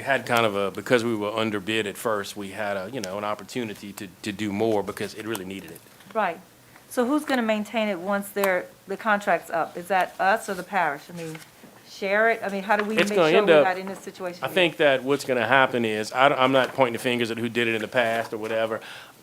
We had kind of a, because we were underbid at first, we had a, you know, an opportunity to, to do more because it really needed it. Right. So who's going to maintain it once their, the contract's up? Is that us or the parish? I mean, share it? I mean, how do we make It's sure gonna we're end up- not in this situation? I think that what's gonna happen is, I, am not pointing the fingers at who did it in the past or whatever.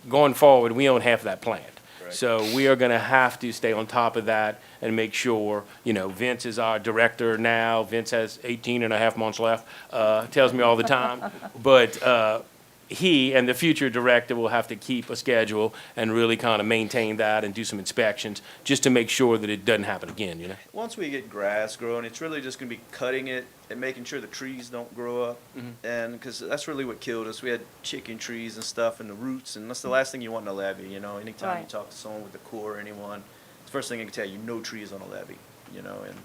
Going forward, we own half that plant. So we are gonna have to stay on top of that and make sure, you know, Vince is our director now. Vince has 18 and a half months left, uh, tells me all the time. But, uh, he and the future director will have to keep a schedule and really kind of maintain that and do some inspections just to make sure that it doesn't happen again, you know? Once we get grass growing, it's really just gonna be cutting it and making sure the trees don't grow up. And, because that's really what killed us. We had chicken trees and stuff and the roots, and that's the last thing you want in a levee, you know? Anytime you Right. talk to someone with the Corps or anyone, the first thing they can tell you, no trees on a levee, you know? And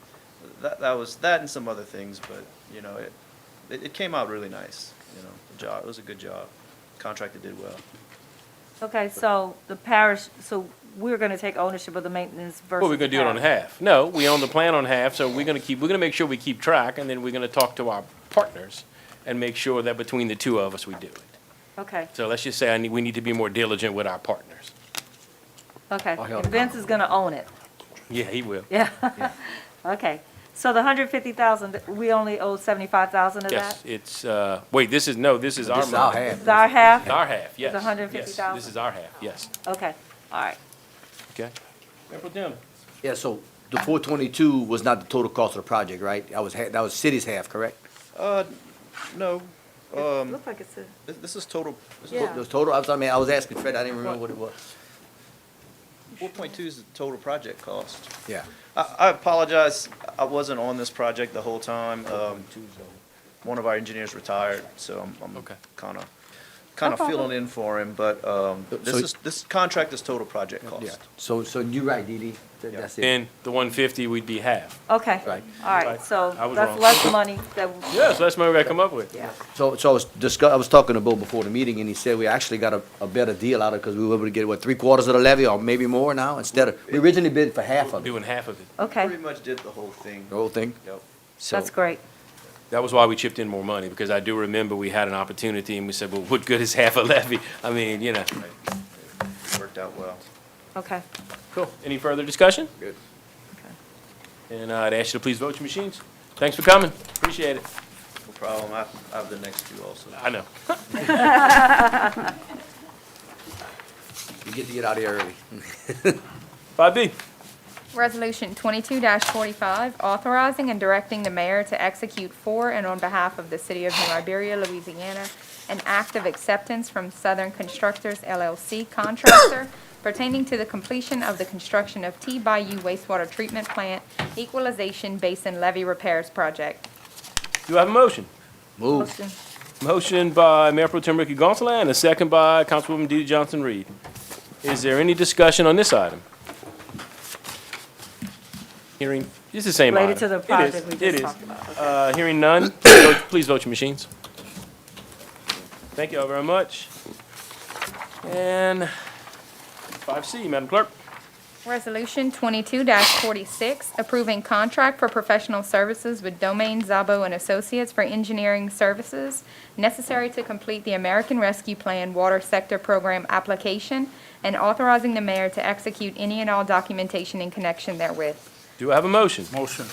that, that was, that and some other things, but, you know, it, it, it came out really nice, you know? The job, it was a good job. Contractor did well. Okay, so the parish, so we're going to take ownership of the maintenance versus. Well, we're gonna do it on parish. half. No, we own the plan on half, so we're gonna keep, we're gonna make sure we keep track, and then we're gonna talk to our partners and make sure that between the two of us, we do it. Okay, So let's just say I need, we need to be more diligent with our partners. okay. Oh, hell And Vince is going to own it. Yeah, he will. Yeah. Okay. So the 150,000, we only owe 75,000 of Yes, that? it's, uh, wait, this is, no, this is our This is our money. half. It's our half? It's our half, yes. yes. 150,000. This is our half, yes, Okay, all right. okay. Yeah, so the four twenty-two was not the total cost of the project, right? That was, ha- that was city's half, correct? Uh, no, um, Looks like it's a. this, this is total, this Yeah. is, It was total, I was, I mean, I was asking Fred, I didn't remember what it was. four point two is the total project cost. Yeah. I I apologize, I wasn't on this project the whole time. Um, One of our engineers retired, so I'm- I'm Okay. kind of, kind of problem. filling in for him, but um, So- this is, this contract is total project Yeah, cost. so, so you're right, Dee Dee, That- Yeah. that's it. Then the one fifty, we'd be half. Okay, all Right. right. Right. So I was that's wrong. less money that, Yes, that's my way I come up with. yeah. So, so I was discuss, I was talking to Bo before the meeting, and he said we actually got a, a better deal out of, because we were able to get, what, three quarters of the levy, or maybe more now, instead of, we originally bid for half of it, Doing half of it. Okay, Pretty much did the whole thing. the whole thing. Yep. So- that's great. That was why we chipped in more money, because I do remember we had an opportunity and we said, well, what good is half a levy? I mean, you know. Worked out well. Okay. Cool. Any further discussion? Good. And uh, I'd ask you to please vote your machines. Thanks for coming. Appreciate it. No problem, I I have the next two also. I know. You get to get out of here early. Five B. Resolution twenty-two forty-five, authorizing and directing the mayor to execute for and on behalf of the city of New Iberia, Louisiana, an act of acceptance from Southern Constructors LLC contractor pertaining to the completion of the construction of T Bayou wastewater treatment plant equalization basin levee repairs project. Do I have a motion? Move. Motion. Motion by Mayor Pro Tem Ricky Gonsalas and a second by Councilwoman DeeDee Johnson-Reed. Is there any discussion on this item? Hearing, it's the same item. Related to the It is, project we it just is. talked about. Uh, Hearing none, vote- please vote your machines. Thank you all very much. And five C, Madam Clerk. Resolution twenty-two forty-six, approving contract for professional services with Domain Zabo and Associates for engineering services necessary to complete the American Rescue Plan Water Sector Program application and authorizing the mayor to execute any and all documentation in connection therewith. Do I have a motion? Motion.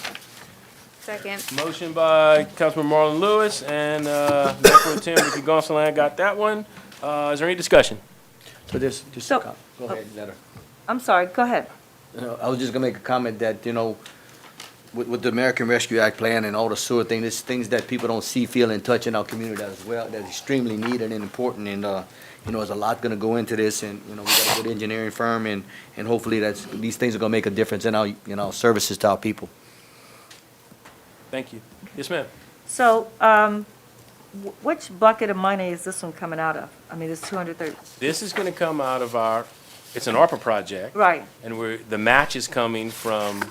Second. Motion by Councilman Marlon Lewis and uh, Mayor Pro Tem Ricky Gonsalas got that one. Uh, Is there any discussion? So this, just, So- uh, go ahead, let her. I'm sorry, go ahead. You know, I was just gonna make a comment that, you know, with, with the American Rescue Act plan and all the sewer thing, there's things that people don't see, feel, and touch in our community as well, that's extremely needed and important, and, uh, you know, there's a lot gonna go into this, and, you know, we got a good engineering firm, and, and hopefully that's, these things are gonna make a difference in our, in our services to our people. Thank you. Yes, ma'am. So, um, wh- which bucket of money is this one coming out of? I mean, it's 230, This is going to come out of our, it's an ARPA project. right, And we're, the match is coming from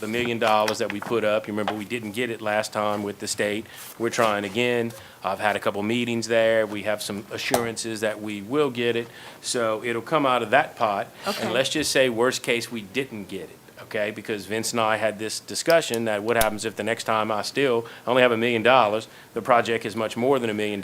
the million dollars that we put up. You remember, we didn't get it last time with the state. We're trying again. I've had a couple meetings there. We have some assurances that we will get it. So it'll come out of that pot. Okay. And let's just say, worst case, we didn't get it. okay? Because Vince and I had this discussion that what happens if the next time I still, I only have a million dollars, the project is much more than a million